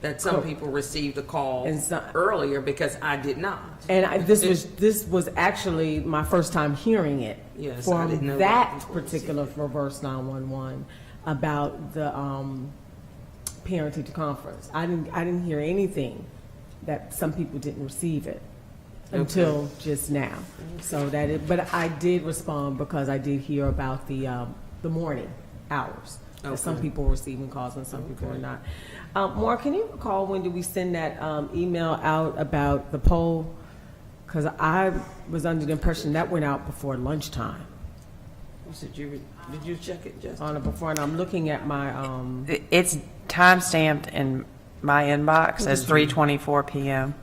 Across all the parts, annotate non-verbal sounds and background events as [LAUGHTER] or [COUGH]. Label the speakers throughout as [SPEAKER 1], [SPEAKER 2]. [SPEAKER 1] that some people received a call
[SPEAKER 2] And so-
[SPEAKER 1] earlier because I did not.
[SPEAKER 2] And I, this was, this was actually my first time hearing it.
[SPEAKER 1] Yes, I didn't know that
[SPEAKER 2] From that
[SPEAKER 1] before.
[SPEAKER 2] particular reverse nine-one-one about the, um, parent teacher conference. I didn't, I didn't hear anything that some people didn't receive it until just now. So that it, but I did respond because I did hear about the, um, the morning hours. That Some
[SPEAKER 1] Okay.
[SPEAKER 2] people were receiving calls and some people were not. Um, Mark, can you recall when did we send that, um, email out about the poll? Because I was under the impression that went out before lunchtime,
[SPEAKER 1] You said you, re- did you check it, Justin?
[SPEAKER 2] on or before, and I'm looking at my, um,
[SPEAKER 3] It's timestamped in my inbox as 3:24 PM.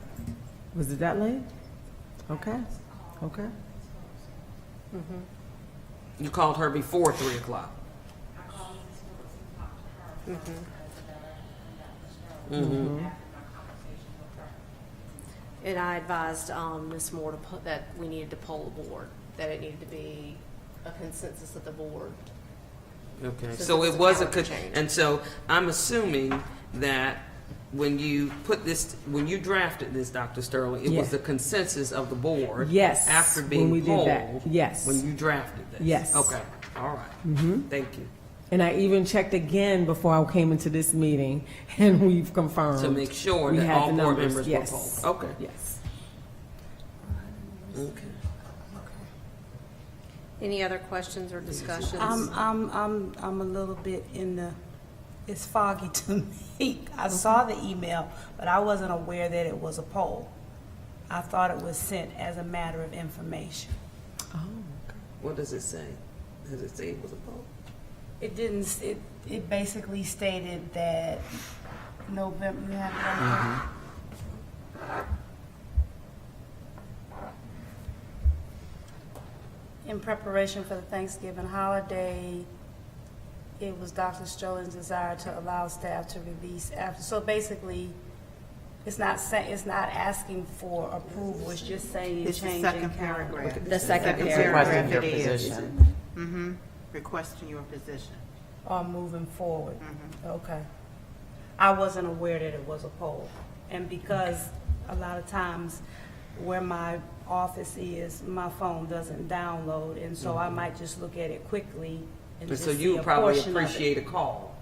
[SPEAKER 2] was it that late? Okay, okay.
[SPEAKER 1] You called her before three o'clock.
[SPEAKER 4] And I advised um, Ms. Moore to put, that we needed to poll the board, that it needed to be a consensus of the board.
[SPEAKER 1] Okay,
[SPEAKER 4] So
[SPEAKER 1] so
[SPEAKER 4] this
[SPEAKER 1] it
[SPEAKER 4] is a
[SPEAKER 1] was a,
[SPEAKER 4] calendar
[SPEAKER 1] con-
[SPEAKER 4] change.
[SPEAKER 1] and so I'm assuming that when you put this, when you drafted this, Dr. Sterling, it was the
[SPEAKER 2] Yeah.
[SPEAKER 1] consensus of the board.
[SPEAKER 2] Yes,
[SPEAKER 1] After
[SPEAKER 2] when
[SPEAKER 1] being
[SPEAKER 2] we did that.
[SPEAKER 1] polled.
[SPEAKER 2] Yes.
[SPEAKER 1] When you drafted this.
[SPEAKER 2] Yes.
[SPEAKER 1] Okay, all right. Mm-hmm. Thank you.
[SPEAKER 2] And I even checked again before I came into this meeting, [LAUGHS] and we've confirmed.
[SPEAKER 1] To make sure
[SPEAKER 2] Um, we
[SPEAKER 1] that
[SPEAKER 2] had
[SPEAKER 1] all
[SPEAKER 2] the
[SPEAKER 1] board
[SPEAKER 2] numbers.
[SPEAKER 1] members were
[SPEAKER 2] Yes.
[SPEAKER 1] polled. Okay.
[SPEAKER 2] Yes.
[SPEAKER 1] Okay.
[SPEAKER 4] Any other questions or discussions?
[SPEAKER 5] I'm, I'm, I'm, I'm a little bit in the, it's foggy [LAUGHS] to me. I saw the email, but I wasn't aware that it was a poll. I thought it was sent as a matter of information.
[SPEAKER 1] What does it say? Does it say it was a poll?
[SPEAKER 5] It didn't, s- it, it basically stated that November, you have it right there?
[SPEAKER 6] Mm-hmm.
[SPEAKER 5] In preparation for the Thanksgiving holiday, it was Dr. Strolin's desire to allow staff to release after, so basically, it's not sa, it's not asking for approval, it's just saying
[SPEAKER 6] It's the
[SPEAKER 5] changing
[SPEAKER 6] second
[SPEAKER 5] calendar.
[SPEAKER 6] paragraph.
[SPEAKER 4] The second
[SPEAKER 6] paragraph
[SPEAKER 4] paragraph.
[SPEAKER 6] it is. Mm-hmm, requesting your position.
[SPEAKER 5] are moving forward.
[SPEAKER 1] Mm-hmm.
[SPEAKER 5] Okay. I wasn't aware that it was a poll. And because a lot of times where my office is, my phone doesn't download, and so I might just look at it quickly and
[SPEAKER 1] And
[SPEAKER 5] just
[SPEAKER 1] Mm-hmm. so
[SPEAKER 5] see
[SPEAKER 1] you
[SPEAKER 5] a
[SPEAKER 1] probably
[SPEAKER 5] portion of it.
[SPEAKER 1] appreciate a call.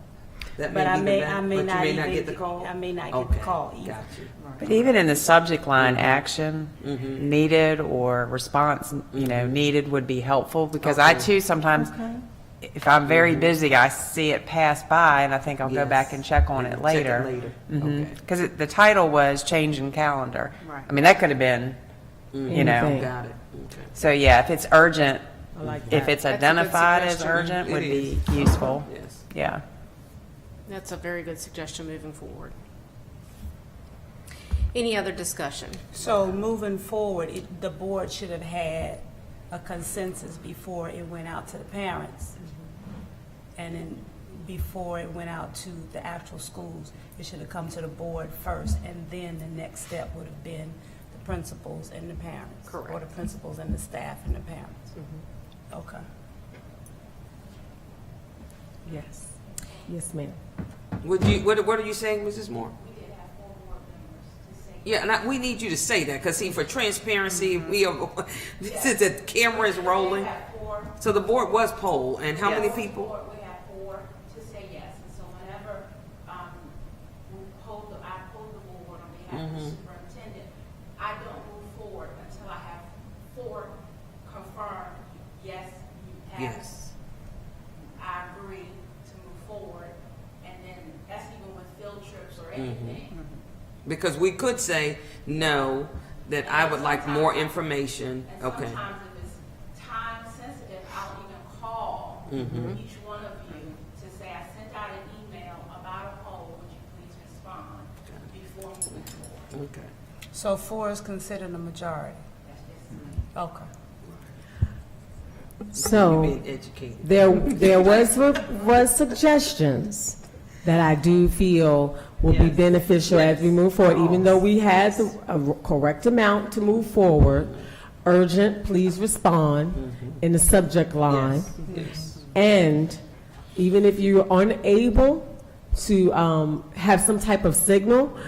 [SPEAKER 1] That
[SPEAKER 5] But I
[SPEAKER 1] be the
[SPEAKER 5] may-
[SPEAKER 1] back-
[SPEAKER 5] I may
[SPEAKER 1] but you
[SPEAKER 5] not
[SPEAKER 1] may not
[SPEAKER 5] even
[SPEAKER 1] get the
[SPEAKER 5] get-
[SPEAKER 1] call?
[SPEAKER 5] I may not get the
[SPEAKER 1] Okay,
[SPEAKER 5] call either.
[SPEAKER 1] Got you.
[SPEAKER 3] But even in the subject line, action needed or response, you know, needed would be helpful because I too sometimes, if I'm very busy, I see it pass by and I think I'll go back
[SPEAKER 1] Yes.
[SPEAKER 3] and check on it
[SPEAKER 1] Check it
[SPEAKER 3] later.
[SPEAKER 1] later. Okay.
[SPEAKER 3] Because the title was changing calendar.
[SPEAKER 6] Right.
[SPEAKER 3] I mean, that could have been, you know.
[SPEAKER 2] Anything.
[SPEAKER 1] Got it. Mm-hmm. Okay.
[SPEAKER 3] So yeah, if it's urgent,
[SPEAKER 2] I like
[SPEAKER 3] if
[SPEAKER 2] that.
[SPEAKER 3] it's
[SPEAKER 4] That's a good
[SPEAKER 3] identified as
[SPEAKER 4] suggestion.
[SPEAKER 3] urgent,
[SPEAKER 1] It
[SPEAKER 3] would be
[SPEAKER 1] is.
[SPEAKER 3] useful.
[SPEAKER 1] Yes.
[SPEAKER 3] Yeah.
[SPEAKER 4] That's a very good suggestion moving forward. Any other discussion?
[SPEAKER 5] So moving forward, it, the board should have had a consensus before it went out to the parents. And then before it went out to the actual schools, it should have come to the board first, and then the next step would have been the principals and the parents. Or the
[SPEAKER 4] Correct.
[SPEAKER 5] principals and the staff and the parents. Okay.
[SPEAKER 2] Yes. Yes, ma'am.
[SPEAKER 1] Would you, what, what are you saying, Mrs. Moore? Yeah, and I, we need you to say that, because see, for transparency,
[SPEAKER 5] Mm-hmm.
[SPEAKER 1] we are, [LAUGHS] since the camera is rolling. So the board was polled, and how many people?
[SPEAKER 7] Four, we had four to say yes, and so whenever, um, we polled, the- I polled the board on behalf
[SPEAKER 1] Mm-hmm.
[SPEAKER 7] of the superintendent, I don't move forward until I have four confirmed, yes, you have.
[SPEAKER 1] Yes.
[SPEAKER 7] I agree to move forward, and then that's even with field trips or
[SPEAKER 1] Mm-hmm.
[SPEAKER 7] anything.
[SPEAKER 1] Because we could say, no, that I would like more information.
[SPEAKER 7] And
[SPEAKER 1] Okay,
[SPEAKER 7] sometimes if it's time sensitive, I'll even call each one of you to say, I sent out an email about a poll, would you please respond before moving forward?
[SPEAKER 1] okay.
[SPEAKER 5] So four is considered a majority? Okay.
[SPEAKER 1] You're
[SPEAKER 2] So
[SPEAKER 1] Being educated.
[SPEAKER 2] there, there was, was suggestions that I do feel will be beneficial as we move forward, even though we had the a correct amount to move forward. Urgent, please respond in the subject line.
[SPEAKER 1] Yes.
[SPEAKER 2] And even if you're unable, to um, have some type of signal